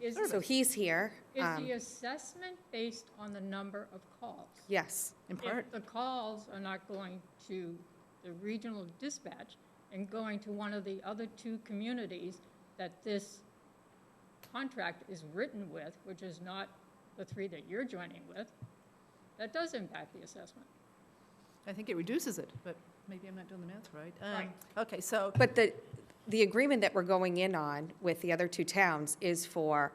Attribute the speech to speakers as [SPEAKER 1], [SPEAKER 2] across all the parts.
[SPEAKER 1] Is,
[SPEAKER 2] So he's here.
[SPEAKER 1] is
[SPEAKER 2] um,
[SPEAKER 1] the assessment based on the number of calls?
[SPEAKER 2] Yes, in part.
[SPEAKER 1] If the calls are not going to the regional dispatch and going to one of the other two communities that this contract is written with, which is not the three that you're joining with, that does impact the assessment.
[SPEAKER 3] I think it reduces it, but maybe I'm not doing the math right. Um,
[SPEAKER 1] Right.
[SPEAKER 3] Okay, so,
[SPEAKER 2] But the, the agreement that we're going in on with the other two towns is for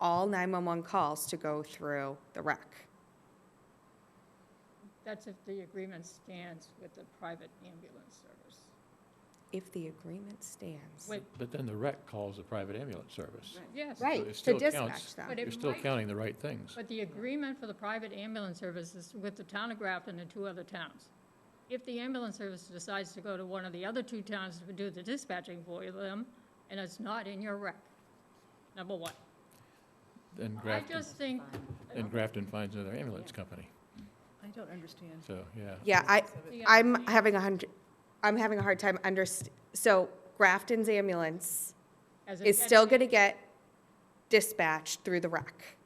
[SPEAKER 2] all 911 calls to go through the rec.
[SPEAKER 1] That's if the agreement stands with the private ambulance service.
[SPEAKER 2] If the agreement stands.
[SPEAKER 1] Wait,
[SPEAKER 4] But then the rec calls the private ambulance service.
[SPEAKER 1] yes.
[SPEAKER 4] So it
[SPEAKER 2] Right, to
[SPEAKER 4] still counts.
[SPEAKER 2] dispatch
[SPEAKER 1] But
[SPEAKER 2] them.
[SPEAKER 1] it
[SPEAKER 4] You're still
[SPEAKER 1] might-
[SPEAKER 4] counting the right things.
[SPEAKER 1] But the agreement for the private ambulance service is with the town of Grafton and two other towns. If the ambulance service decides to go to one of the other two towns to do the dispatching for them, and it's not in your rec, number one.
[SPEAKER 4] And
[SPEAKER 1] I
[SPEAKER 4] Grafton,
[SPEAKER 1] just think,
[SPEAKER 4] and Grafton finds another ambulance company.
[SPEAKER 3] I don't understand.
[SPEAKER 4] So, yeah.
[SPEAKER 2] Yeah, I,
[SPEAKER 1] the-
[SPEAKER 2] I'm having a hundred, I'm having a hard time underst, so Grafton's ambulance
[SPEAKER 1] as it
[SPEAKER 2] is
[SPEAKER 1] gets-
[SPEAKER 2] still going to get dispatched through the rec.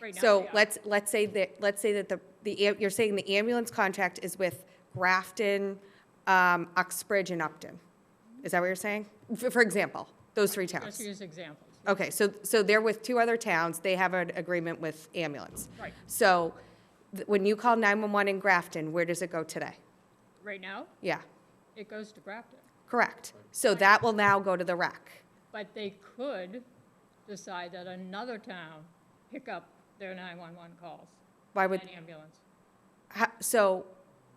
[SPEAKER 1] right now
[SPEAKER 2] So
[SPEAKER 1] they are.
[SPEAKER 2] let's, let's say that, let's say that the, the, am- you're saying the ambulance contract is with Grafton, um, Uxbridge, and Upton. Is that what you're saying? For, for example, those three
[SPEAKER 1] Just
[SPEAKER 2] towns.
[SPEAKER 1] use examples.
[SPEAKER 2] Okay, so, so they're with two other towns, they have an agreement with ambulance.
[SPEAKER 1] Right,
[SPEAKER 2] So th- when you call 911 in Grafton, where does it go today?
[SPEAKER 1] right now,
[SPEAKER 2] Yeah,
[SPEAKER 1] it goes to Grafton.
[SPEAKER 2] correct. So that will now go to the rec.
[SPEAKER 1] But they could decide that another town pick up their 911 calls
[SPEAKER 2] Why would,
[SPEAKER 1] and ambulance.
[SPEAKER 2] ho- so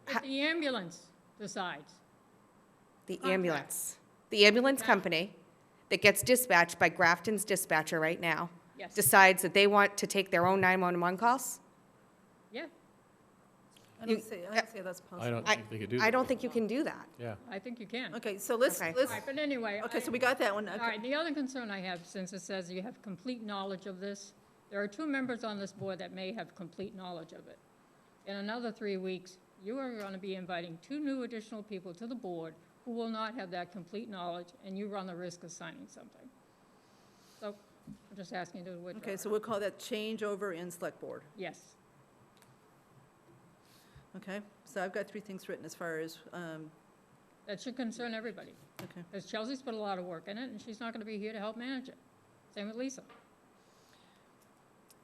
[SPEAKER 2] Ha-
[SPEAKER 1] If the ambulance decides,
[SPEAKER 2] The
[SPEAKER 1] Contract.
[SPEAKER 2] ambulance. The ambulance
[SPEAKER 1] Right.
[SPEAKER 2] company that gets dispatched by Grafton's dispatcher right now
[SPEAKER 1] Yes.
[SPEAKER 2] decides that they want to take their own 911 calls?
[SPEAKER 1] yeah,
[SPEAKER 3] I
[SPEAKER 2] You-
[SPEAKER 3] don't see, I don't see how that's possible.
[SPEAKER 4] I don't
[SPEAKER 2] I-
[SPEAKER 4] think they could do that.
[SPEAKER 2] I don't think you can do that.
[SPEAKER 4] Yeah.
[SPEAKER 1] I think you can.
[SPEAKER 3] Okay, so let's,
[SPEAKER 2] Okay.
[SPEAKER 3] let's,
[SPEAKER 1] All right, but anyway.
[SPEAKER 3] okay,
[SPEAKER 1] I-
[SPEAKER 3] so we got that one.
[SPEAKER 1] All
[SPEAKER 3] Okay.
[SPEAKER 1] right, the other concern I have, since it says you have complete knowledge of this, there are two members on this board that may have complete knowledge of it. In another three weeks, you are going to be inviting two new additional people to the board who will not have that complete knowledge, and you run the risk of signing something. So I'm just asking you to withdraw.
[SPEAKER 3] Okay, so we'll call that changeover in select board,
[SPEAKER 1] Yes,
[SPEAKER 3] okay? So I've got three things written as far as, um,
[SPEAKER 1] that should concern everybody,
[SPEAKER 3] okay.
[SPEAKER 1] because Chelsea's put a lot of work in it, and she's not going to be here to help manage it. Same with Lisa.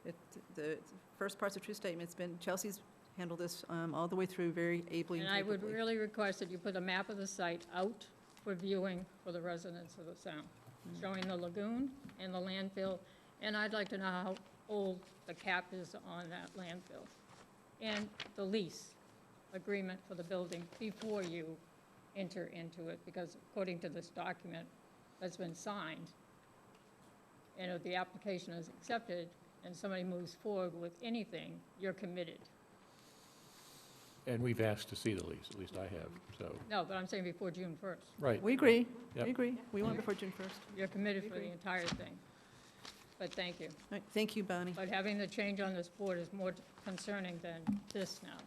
[SPEAKER 3] It- The first part's a true statement. It's been, Chelsea's handled this um, all the way through very ably and
[SPEAKER 1] And I would
[SPEAKER 3] capably.
[SPEAKER 1] really request that you put a map of the site out for viewing for the residents of the town, showing the lagoon and the landfill, and I'd like to know how old the cap is on that landfill. And the lease agreement for the building before you enter into it, because according to this document that's been signed, and if the application is accepted and somebody moves forward with anything, you're committed.
[SPEAKER 4] And we've asked to see the lease, at least I have, so,
[SPEAKER 1] No, but I'm saying before June first.
[SPEAKER 4] right.
[SPEAKER 3] We agree, we
[SPEAKER 4] Yep.
[SPEAKER 3] agree. We want it before June 1st. All
[SPEAKER 1] You're committed for
[SPEAKER 3] Agree.
[SPEAKER 1] the entire thing. But thank you.
[SPEAKER 3] right, thank you, Bonnie.
[SPEAKER 1] But having the change on this board is more concerning than this now.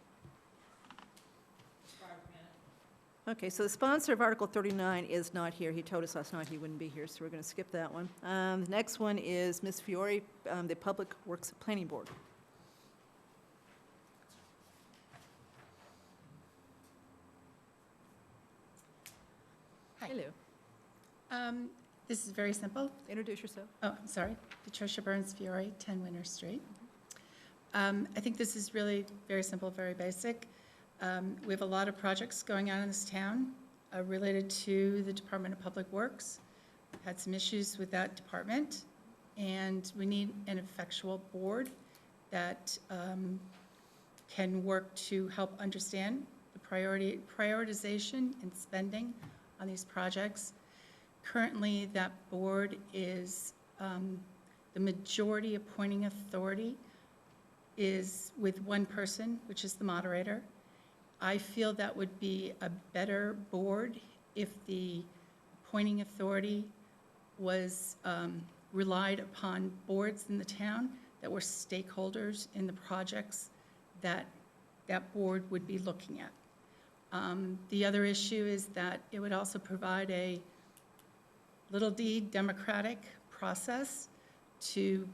[SPEAKER 3] Okay, so the sponsor of Article 39 is not here. He told us last night he wouldn't be here, so we're going to skip that one. Um, The next one is Ms. Fiore, um, the Public Works Planning Board. Hello.
[SPEAKER 5] Um, This is very simple.
[SPEAKER 3] Introduce yourself.
[SPEAKER 5] Oh, I'm sorry. Patricia Burns Fiore, 10 Winter Street. Um, I think this is really very simple, very basic. Um, We have a lot of projects going on in this town uh, related to the Department of Public Works. Had some issues with that department, and we need an effectual board that um, can work to help understand the priority, prioritization and spending on these projects. Currently, that board is, um, the majority appointing authority is with one person, which is the moderator. I feel that would be a better board if the appointing authority was um, relied upon boards in the town that were stakeholders in the projects that that board would be looking at. Um, The other issue is that it would also provide a little d democratic process to